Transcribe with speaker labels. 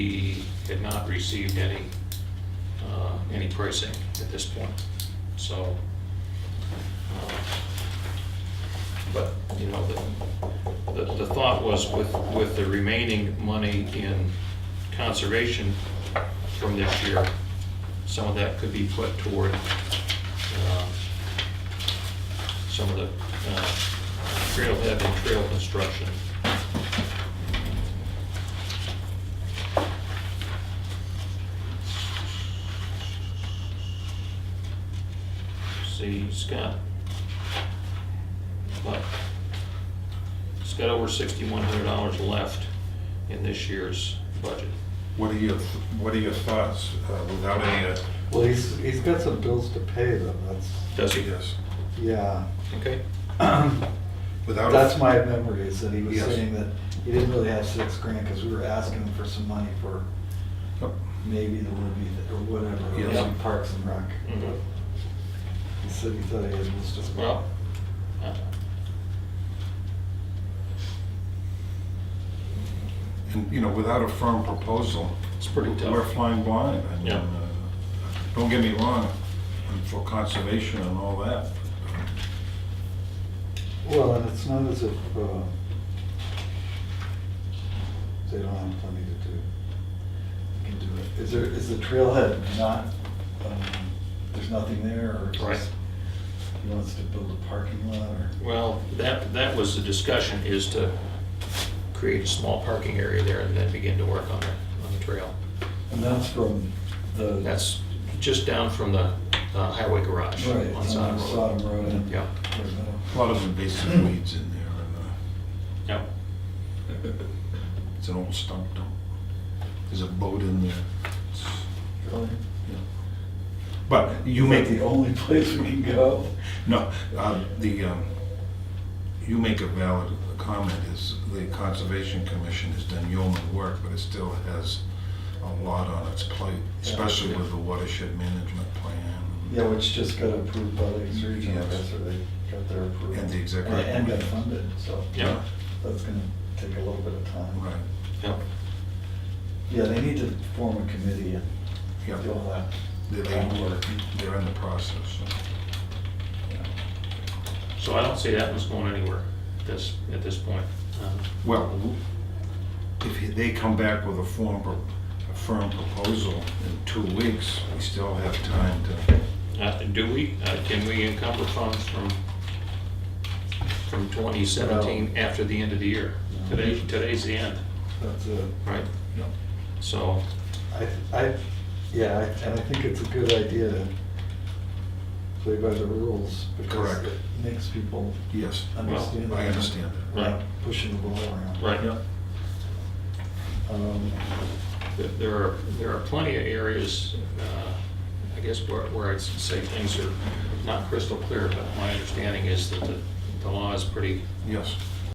Speaker 1: had not received any, uh, any pricing at this point, so. uh, But, you know, the, the- the thought was with, with the remaining money in conservation from this year, some of that could be put toward uh, some of the uh, trailhead and trail construction. See, Scott. But he's got over sixty-one hundred dollars left in this year's budget.
Speaker 2: What are your, what are your thoughts uh, without any, uh,
Speaker 3: Well, he's, he's got some bills to pay though, that's,
Speaker 1: Does he?
Speaker 2: yes,
Speaker 3: yeah.
Speaker 1: Okay,
Speaker 2: without?
Speaker 3: That's my memory, is that he was
Speaker 2: Yes.
Speaker 3: saying that he didn't really have six grand, because we were asking him for some money for
Speaker 2: Yep.
Speaker 3: maybe the Libby, or whatever, it was
Speaker 2: Yes.
Speaker 3: in Parks and Rec.
Speaker 1: Mhm.
Speaker 3: He said he thought he had just as
Speaker 1: well. uh,
Speaker 2: And, you know, without a firm proposal,
Speaker 1: It's pretty tough.
Speaker 2: we're flying blind. I mean,
Speaker 1: Yeah.
Speaker 2: uh, Don't get me wrong, I'm for conservation and all that.
Speaker 3: Well, and it's not as if, uh, they don't have plenty to do. They Can do it. Is there, is the trailhead not, um, there's nothing there, or it's
Speaker 1: Right.
Speaker 3: just, he wants to build a parking lot, or?
Speaker 1: Well, that, that was the discussion, is to create a small parking area there and then begin to work on the, on the trail.
Speaker 3: And that's from the.
Speaker 1: That's just down from the uh, highway garage
Speaker 3: Right,
Speaker 1: on Sodom Road.
Speaker 3: Sodom Road. and-
Speaker 1: Yeah.
Speaker 2: A lot of invasive weeds in there, and uh,
Speaker 1: Yep,
Speaker 2: it's an old stump dump. There's a boat in there. It's,
Speaker 3: Really?
Speaker 2: you know. But you
Speaker 3: Is
Speaker 2: make.
Speaker 3: that the only place we can go?
Speaker 2: No, uh, the, um, you make a valid comment, is the Conservation Commission has done yeoman work, but it still has a lot on its plate, especially with the watershed management plan.
Speaker 3: Yeah, which just got approved by the East Region, I
Speaker 2: Yes.
Speaker 3: guess, or they got their approval.
Speaker 2: And the executive
Speaker 3: And got
Speaker 2: committee.
Speaker 3: funded, so.
Speaker 1: yep,
Speaker 3: That's gonna take a little bit of time.
Speaker 2: Right,
Speaker 1: yep.
Speaker 3: Yeah, they need to form a committee and
Speaker 2: yeah,
Speaker 3: do all that.
Speaker 2: they, they work, they're in the process.
Speaker 3: Yeah.
Speaker 1: So I don't see that one's going anywhere at this, at this point. Um,
Speaker 2: Well, if they come back with a form, pro- a firm proposal in two weeks, we still have time to,
Speaker 1: uh, Do we, uh, can we encumber funds from, from 2017 after the end of the year?
Speaker 3: No.
Speaker 1: Today, today's the end,
Speaker 3: That's a,
Speaker 1: right?
Speaker 2: you know,
Speaker 1: So,
Speaker 3: I, I, yeah, I- and I think it's a good idea to play by the rules. because
Speaker 2: Correct.
Speaker 3: it Makes people
Speaker 2: yes,
Speaker 3: understand.
Speaker 2: I understand that.
Speaker 3: that we're not Pushing the ball around.
Speaker 1: right.
Speaker 2: Yeah.
Speaker 3: Um,
Speaker 1: There- There are, there are plenty of areas, uh, I guess where where I'd say things are not crystal clear, but my understanding is that the the law is pretty
Speaker 2: Yes,